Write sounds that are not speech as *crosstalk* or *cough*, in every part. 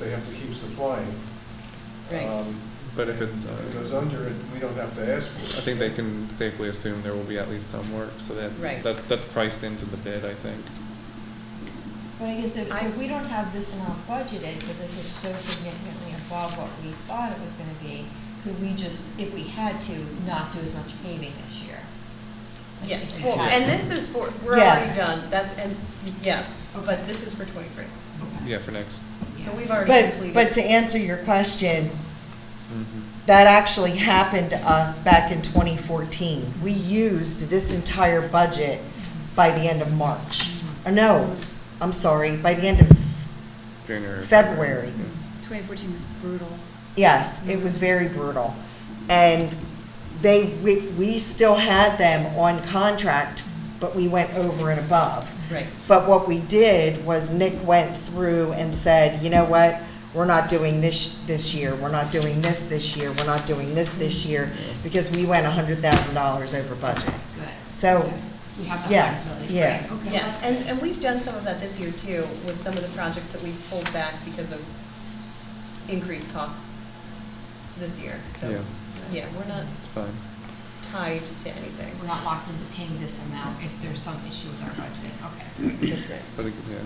they have to keep supplying. Right. Um, But if it's, If it uh, goes under it, we don't have to ask for I it. think they can safely assume there will be at least some work, so that's, Right. that's, that's priced into the bid, I think. But I guess if, so I- if we don't have this in our budget, Ed, because this is so significantly above what we thought it was gonna be, could we just, if we had to, not do as much paving this year? Like, Yes, if we well, had and to. this is for, we're already Yes. done, that's, and, yes, but this is for twenty-three, Okay. Yeah, for next. so Yeah. we've already But, completed. but to answer your question, Mhm. that actually happened to us back in 2014. We used this entire budget by the end of March. Or no, I'm sorry, by the end of January. or February. Mm-hmm. Twenty fourteen was brutal. Yes, it was very brutal. And they, we, we still had them on contract, but we went over and above. Right. But what we did was Nick went through and said, you know what? We're not doing this this year. We're not doing this this year. We're not doing this this year because we went hundred thousand dollars over budget. Good. So, Okay. We have that yes, flexibility. yeah. Great. Okay, Yes, that's and, good. and we've done some of that this year too, with some of the projects that we pulled back because of increased costs this year, so, Yeah. yeah, we're not It's fine. tied to anything. We're not locked into paying this amount if there's some issue with our budget, okay. That's right. But, it- yeah.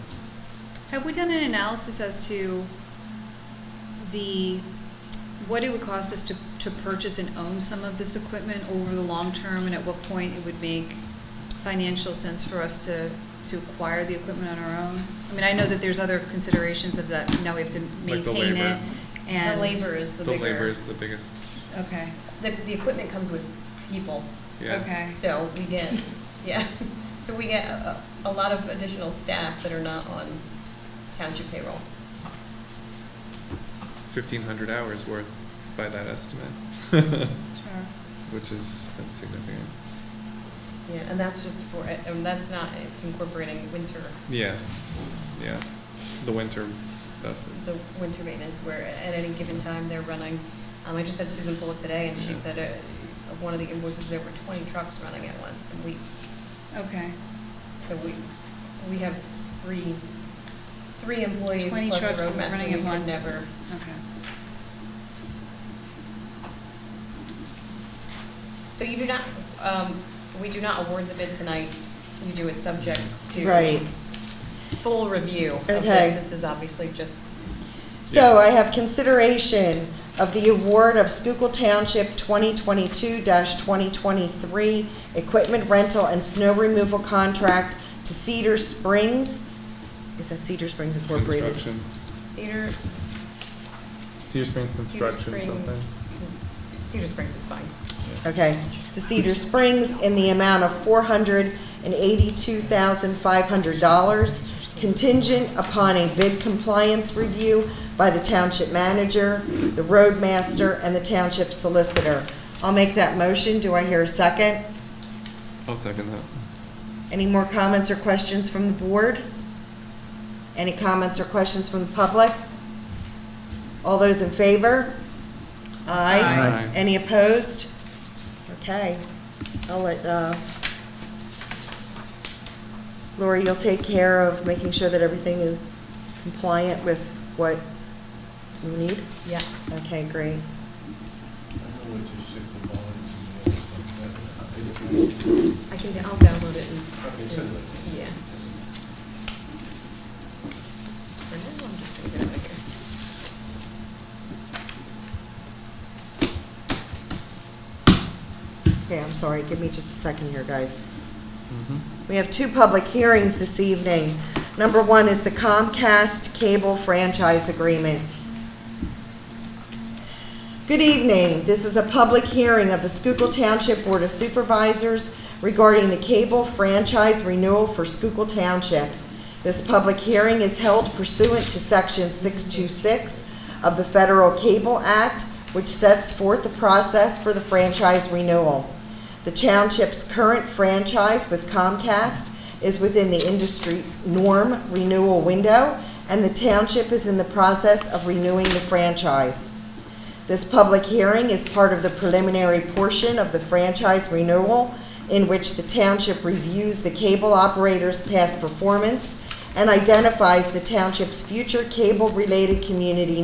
Have we done an analysis as to the, what it would cost us to, to purchase and own some of this equipment over the long term? And at what point it would make financial sense for us to, to acquire the equipment on our own? I mean, I know that there's other considerations of that, you know, we have to the maintain it labor. and. The labor is the The labor bigger, is the biggest, Okay, the, the equipment comes with people, yeah. okay. so we get, yeah, so we get a, a a lot of additional staff that are not on township payroll. Fifteen hundred hours worth by that estimate, Sure. *laughs* which is, that's significant. Yeah, and that's just for, and that's not incorporating winter, Yeah, yeah. The winter stuff the is, winter maintenance where at any given time they're running. Um, I just had Susan pull it today and she Yeah. said, uh, of one of the invoices, there were twenty trucks running at once a week. Okay. So we, we have three, three employees 20 plus trucks a roadmaster. running We at could once. Never, Okay. so you do not, um, we do not award the bid tonight. You do it subject to. right. Full review of this. Okay. This is obviously just, So I have consideration of the award of Schuylkill Township twenty twenty-two twenty twenty-three equipment rental and snow removal contract to Cedar Springs. Is that Cedar Springs Incorporated? construction. Cedar, Cedar Springs Cedar construction, something. Springs, Cedar Springs is fine. Okay, to Cedar Springs in the amount of four hundred and eighty-two thousand five hundred dollars contingent upon a bid compliance review by the township manager, the roadmaster, and the township solicitor. I'll make that motion. Do I hear a second? I'll second that. Any more comments or questions from the board? Any comments or questions from the public? All those in favor? Aye. Aye. Aye. Any opposed? Okay, I'll let, uh, Lori, you'll take care of making sure that everything is compliant with what you need? Yes. Okay, I great. know what you said, the volumes and all that stuff, that- I can, I'll download it I- and. Okay, send it. Yeah. And then I'm just gonna get it right here. Okay, I'm sorry, give me just a second here, guys. Mhm. We have two public hearings this evening. Number one is the Comcast Cable Franchise Agreement. Good evening. This is a public hearing of the Schuylkill Township Board of Supervisors regarding the cable franchise renewal for Schuylkill Township. This public hearing is held pursuant to Section 626 of the Federal Cable Act, which sets forth the process for the franchise renewal. The township's current franchise with Comcast is within the industry norm renewal window, and the township is in the process of renewing the franchise. This public hearing is part of the preliminary portion of the franchise renewal in which the township reviews the cable operator's past performance and identifies the township's future cable-related community